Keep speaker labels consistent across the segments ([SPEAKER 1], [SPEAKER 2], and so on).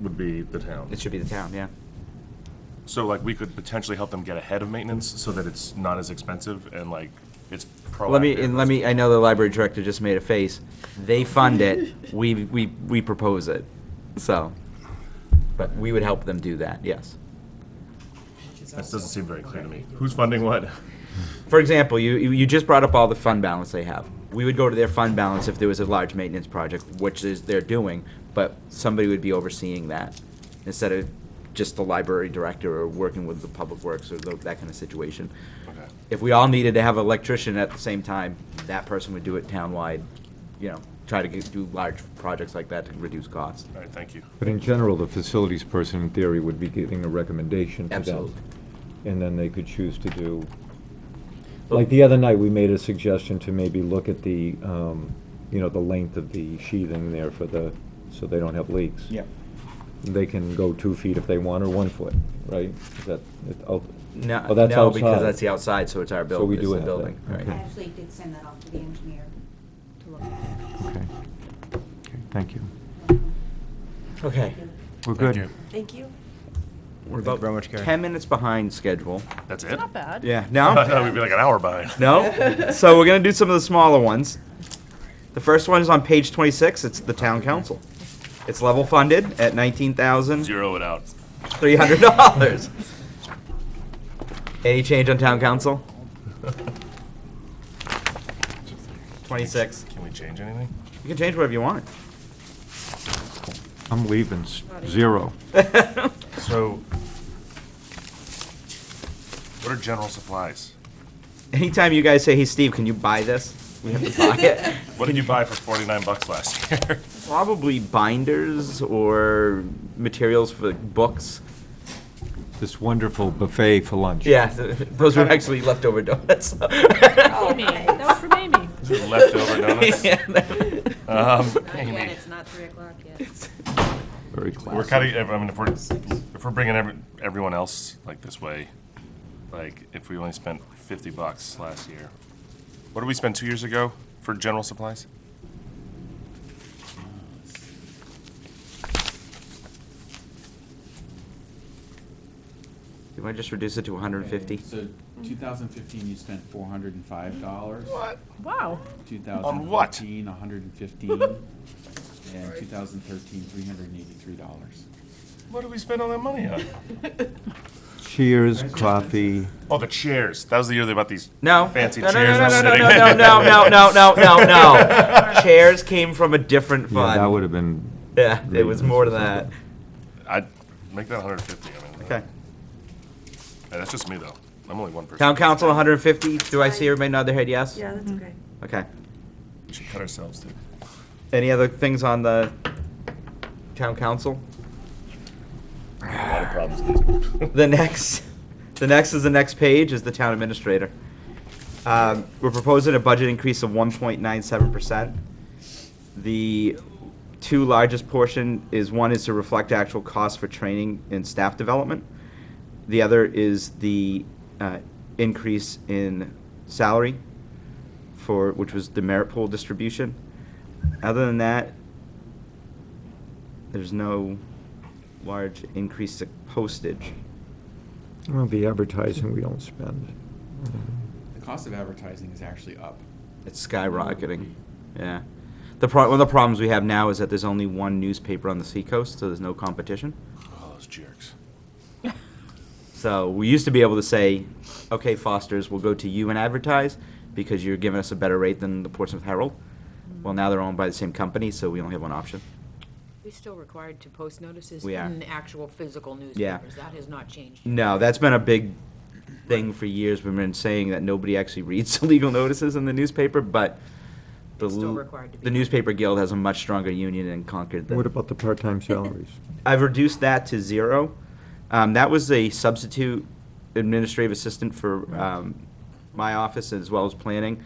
[SPEAKER 1] would be the town.
[SPEAKER 2] It should be the town, yeah.
[SPEAKER 1] So like, we could potentially help them get ahead of maintenance so that it's not as expensive and like, it's proactive.
[SPEAKER 2] Let me, and let me, I know the library director just made a face. They fund it, we, we, we propose it, so. But we would help them do that, yes.
[SPEAKER 1] That doesn't seem very clear to me. Who's funding what?
[SPEAKER 2] For example, you, you you just brought up all the fund balance they have. We would go to their fund balance if there was a large maintenance project, which is, they're doing, but somebody would be overseeing that instead of just the library director or working with the public works or tho- that kind of situation.
[SPEAKER 1] Okay.
[SPEAKER 2] If we all needed to have an electrician at the same time, that person would do it townwide, you know, try to get- do large projects like that to reduce costs.
[SPEAKER 1] All right, thank you.
[SPEAKER 3] But in general, the facilities person, in theory, would be giving a recommendation to them.
[SPEAKER 2] Absolutely.
[SPEAKER 3] And then they could choose to do, like the other night, we made a suggestion to maybe look at the, um, you know, the length of the sheathing there for the, so they don't have leaks. They can go two feet if they want, or one foot, right? Is that, it- oh,
[SPEAKER 2] No,
[SPEAKER 3] Oh, that's
[SPEAKER 2] no, because
[SPEAKER 3] outside.
[SPEAKER 2] that's the outside, so it's our
[SPEAKER 3] So we
[SPEAKER 2] building, it's
[SPEAKER 3] do
[SPEAKER 2] the
[SPEAKER 3] have that,
[SPEAKER 2] building,
[SPEAKER 3] okay.
[SPEAKER 2] right.
[SPEAKER 4] I actually did send that off to the engineer to look at.
[SPEAKER 5] Okay. Okay, Thank you.
[SPEAKER 2] Okay.
[SPEAKER 5] We're
[SPEAKER 1] Thank
[SPEAKER 5] good.
[SPEAKER 1] you.
[SPEAKER 6] Thank you.
[SPEAKER 2] We're
[SPEAKER 5] Thank you very much, Gary.
[SPEAKER 2] Ten minutes behind schedule.
[SPEAKER 1] That's it?
[SPEAKER 6] Not bad.
[SPEAKER 2] Yeah,
[SPEAKER 1] I
[SPEAKER 2] no?
[SPEAKER 1] thought we'd be like an hour behind.
[SPEAKER 2] No. so we're gonna do some of the smaller ones. The first one is on page 26. It's the town council. It's level funded at nineteen thousand
[SPEAKER 1] Zero it out.
[SPEAKER 2] three hundred dollars. Any change on town council? Twenty-six.
[SPEAKER 1] Can we change anything?
[SPEAKER 2] You can change whatever you want.
[SPEAKER 5] I'm leaving, s- zero.
[SPEAKER 1] So, what are general supplies?
[SPEAKER 2] Anytime you guys say, "Hey, Steve, can you buy this?" We have to buy it.
[SPEAKER 1] What did you buy for forty-nine bucks last year?
[SPEAKER 2] Probably binders or materials for books.
[SPEAKER 3] this wonderful buffet for lunch.
[SPEAKER 2] Yeah, th- those were actually leftover donuts.
[SPEAKER 6] Amy, that was from Amy.
[SPEAKER 1] Leftover donuts? Um,
[SPEAKER 4] Again,
[SPEAKER 1] Amy,
[SPEAKER 4] it's not three o'clock yet.
[SPEAKER 1] We're
[SPEAKER 3] Very classic.
[SPEAKER 1] cutting, I mean, if we're, if we're bringing every, everyone else like this way, like, if we only spent fifty bucks last year, what did we spend two years ago for general supplies?
[SPEAKER 2] You might just reduce it to 150.
[SPEAKER 7] So 2015, you spent $405.
[SPEAKER 6] Wow.
[SPEAKER 7] 2014,
[SPEAKER 1] On what?
[SPEAKER 7] 115 And 2013, $383.
[SPEAKER 1] What did we spend all that money on?
[SPEAKER 5] Cheers, coffee.
[SPEAKER 1] Oh, the chairs. That was the year they bought these
[SPEAKER 2] No.
[SPEAKER 1] fancy
[SPEAKER 2] no, no,
[SPEAKER 1] chairs.
[SPEAKER 2] No, no,
[SPEAKER 1] and
[SPEAKER 2] no,
[SPEAKER 1] sitting-
[SPEAKER 2] no, no, no, no, no, no, no, no. Chairs came from a different
[SPEAKER 3] Yeah, that
[SPEAKER 2] fund.
[SPEAKER 3] would have been,
[SPEAKER 2] Yeah, it was
[SPEAKER 3] Reasons
[SPEAKER 2] more
[SPEAKER 3] or
[SPEAKER 2] than that.
[SPEAKER 1] I'd make that hundred and fifty, I mean.
[SPEAKER 2] Okay.
[SPEAKER 1] Hey, that's just me, though. I'm only one person.
[SPEAKER 2] Town council, 150. Do I see everybody nod their head yes?
[SPEAKER 6] Yeah,
[SPEAKER 5] Mm-hmm.
[SPEAKER 6] that's okay.
[SPEAKER 2] Okay.
[SPEAKER 1] We should cut ourselves, too.
[SPEAKER 2] Any other things on the town council?
[SPEAKER 1] A lot of problems. these days.
[SPEAKER 2] The next, the next is the next page is the town administrator. Um, We're proposing a budget increase of one point nine seven percent. The two largest portion is, one is to reflect actual costs for training and staff development. The other is the uh, increase in salary for, which was the merit pool distribution. Other than that, there's no large increase to postage.
[SPEAKER 5] Well, the advertising we don't spend.
[SPEAKER 7] The cost of advertising is actually up.
[SPEAKER 2] It's skyrocketing. Yeah. The pro- one of the problems we have now is that there's only one newspaper on the seacoast, so there's no competition.
[SPEAKER 1] All Oh, those jerks.
[SPEAKER 2] So we used to be able to say, okay, Foster's, we'll go to you and advertise because you're giving us a better rate than the Portsmouth Herald. Well, now they're owned by the same company, so we only have one option.
[SPEAKER 8] We're still required to post notices
[SPEAKER 2] We are.
[SPEAKER 8] in actual physical newspapers. That has not changed.
[SPEAKER 2] No, that's been a big thing for years. We've been saying that nobody actually reads legal notices in the newspaper, but the,
[SPEAKER 8] It's still
[SPEAKER 2] l-
[SPEAKER 8] required to be.
[SPEAKER 2] the newspaper guild has a much stronger union in Concord than
[SPEAKER 5] What about the part-time salaries?
[SPEAKER 2] I've reduced that to zero. Um, that was a substitute administrative assistant for um, my office as well as planning.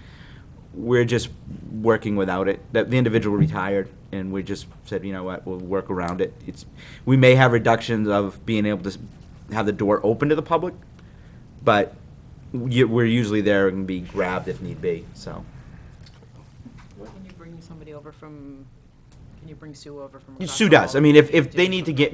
[SPEAKER 2] We're just working without it. That the individual retired, and we just said, you know what, we'll work around it. It's we may have reductions of being able to s- have the door open to the public, but you- we're usually there and be grabbed if need be. So
[SPEAKER 8] Can you bring somebody over from, can you bring Sue over from? across
[SPEAKER 2] Sue
[SPEAKER 8] the
[SPEAKER 2] does.
[SPEAKER 8] hall?
[SPEAKER 2] I mean, if if
[SPEAKER 8] To
[SPEAKER 2] they
[SPEAKER 8] do
[SPEAKER 2] need to
[SPEAKER 8] something?
[SPEAKER 2] get